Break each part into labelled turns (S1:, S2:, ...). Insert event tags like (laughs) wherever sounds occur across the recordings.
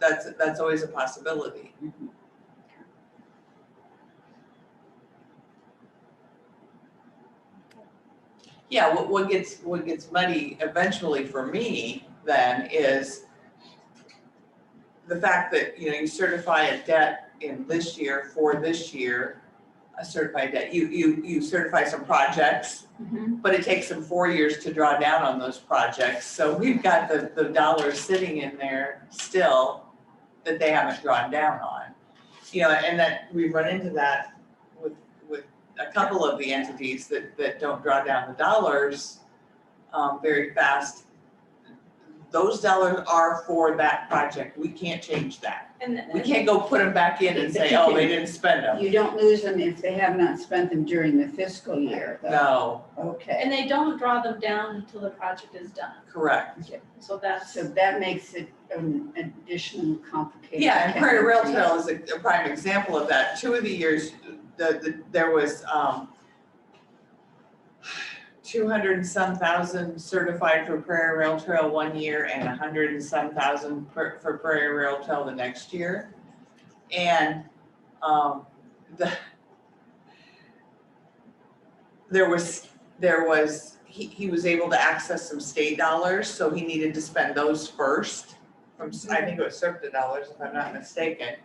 S1: that's, that's always a possibility. Yeah, what, what gets, what gets muddy eventually for me then is the fact that, you know, you certify a debt in this year for this year, a certified debt, you, you, you certify some projects but it takes them four years to draw down on those projects, so we've got the, the dollars sitting in there still that they haven't drawn down on. You know, and that we run into that with, with a couple of the entities that, that don't draw down the dollars, um, very fast. Those dollars are for that project, we can't change that.
S2: And
S1: We
S2: then,
S1: can't go put them back in and say, oh, they didn't spend them,
S3: You don't lose them if they have not spent them during the fiscal year, though.
S1: no,
S3: Okay,
S2: and they don't draw them down until the project is done,
S1: correct.
S2: so that's,
S3: so that makes it an additional complicated.
S1: Yeah, and Prairie Rail
S3: calendar.
S1: Trail is a a prime example of that. Two of the years, the, the, there was, um, two hundred and some thousand certified for Prairie Rail Trail one year and a hundred and some thousand for, for Prairie Rail Trail the next year. And, um, the, there was, there was, he, he was able to access some state dollars, so he needed to spend those first from, s- I think it was CERTA dollars, if I'm not mistaken.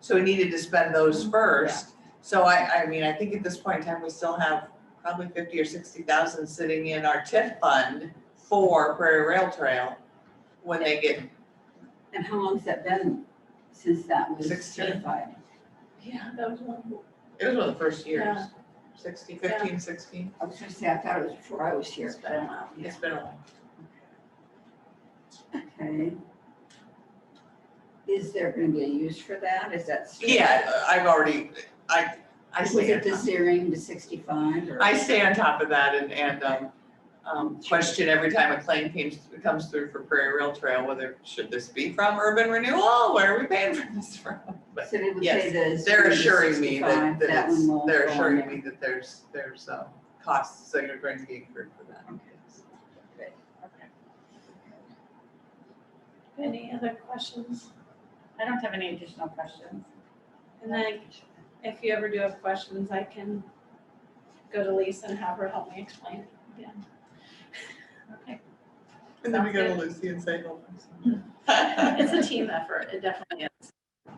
S1: So he needed to spend those first. So I, I mean, I think at this point in time, we still have probably fifty or sixty thousand sitting in our TIF fund for Prairie Rail Trail when they get,
S3: And how long's that been since that was
S1: Sixteen.
S3: certified?
S2: yeah, that was one.
S1: it was one of the first years,
S2: Yeah.
S1: sixty, fifteen, sixteen.
S3: I was gonna say, I thought it was before I was here,
S1: It's
S3: but
S1: been
S3: I
S1: a
S3: don't know.
S1: It's been a while.
S3: Okay. Is there gonna be a use for that? Is that? still-
S1: Yeah, I've already, I, I
S3: Was
S1: stay on
S3: it the
S1: top.
S3: zeroing to sixty-five or?
S1: I stay on top of that and, and, um, um, question every time a claim comes, comes through for Prairie Rail Trail, whether should this be from urban renewal? Where are we paying for this from? But
S3: So they would
S1: yes,
S3: say the.
S1: They're assuring
S3: zeroing to
S1: me that,
S3: 65,
S1: that
S3: one
S1: it's,
S3: won't
S1: they're
S3: go on
S1: assuring
S3: there.
S1: me that there's, there's, um, costs that are going to be incurred for that.
S2: Any other questions?
S4: I don't have any additional questions.
S2: And then if you ever do have questions, I can go to Lisa and have her help me explain it again.
S4: Okay.
S1: And then we go to Lucy and say, oh.
S3: (laughs)
S2: It's a team effort, it definitely is.
S4: All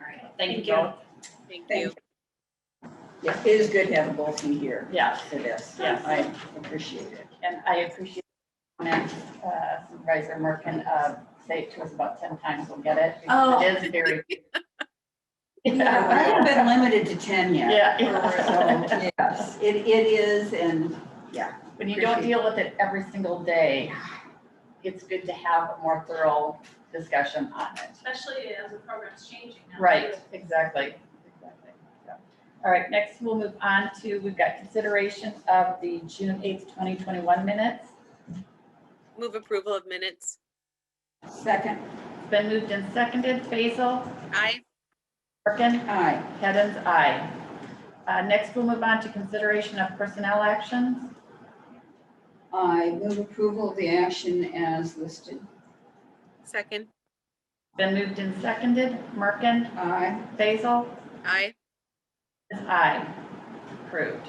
S4: right.
S2: Thank
S4: Thank
S2: you.
S4: you.
S3: Thank you. Yeah, it is good to have both of you here
S4: Yeah,
S3: for this.
S4: Yeah.
S3: I appreciate it.
S4: and I appreciate the comment, uh, Supervisor Merkin, uh, say it to us about ten times, we'll get it.
S2: Oh.
S4: It is very.
S3: Yeah, I haven't been limited to ten yet.
S4: (laughs) Yeah.
S3: So, yes, it, it is, and
S4: When you don't deal with it every single day, it's good to have a more thorough discussion on it.
S2: Especially as the program's changing now.
S4: Right, exactly, exactly. so. All right, next we'll move on to, we've got consideration of the June eighth, twenty twenty-one minutes.
S5: Move approval of minutes.
S3: second,
S4: It's been moved and seconded. Basil,
S5: Aye.
S4: Merkin,
S3: aye,
S4: Heddens, aye. Uh, next we'll move on to consideration of personnel actions.
S3: I move approval of the action as listed.
S5: Second.
S4: Been moved and seconded. Merkin,
S3: Aye,
S4: Basil,
S5: Aye.
S4: is aye. Approved.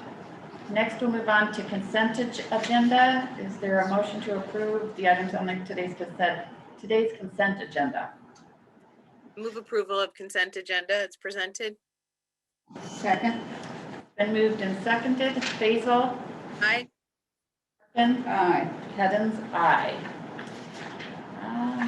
S4: Next we'll move on to consent ag- agenda. Is there a motion to approve the items on the- today's consent, today's consent agenda?
S5: Move approval of consent agenda as presented.
S3: second,
S4: Been moved and seconded. Basil,
S5: Aye.
S4: Merkin,
S3: aye,
S4: Heddens, aye. Uh,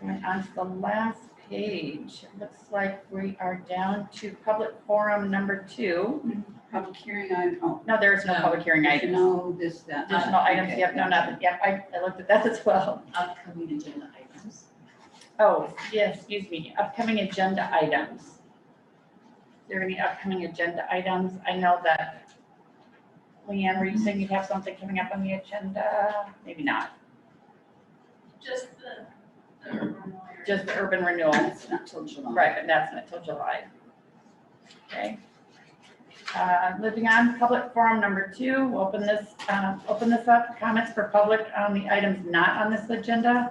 S4: Going on to the last page, it looks like we are down to public forum number two.
S3: public hearing, I, oh,
S4: No, there is no
S1: No,
S4: public hearing
S3: you
S4: items.
S3: know, this, that.
S4: Additional items,
S3: Okay.
S4: yep, no, nothing, yep, I, I looked at that (laughs) as well.
S6: upcoming agenda items.
S4: Oh, yes, excuse me, upcoming agenda items. Is there any upcoming agenda items? I know that, Leanne, were you saying you have something coming up on the agenda? Maybe not.
S2: Just the, the urban lawyer.
S4: just the urban renewal.
S3: That's not till July.
S4: Right, but that's not till July. Okay. Uh, Moving on, public forum number two, We'll open this, uh, open this up, comments for public on the items not on this agenda.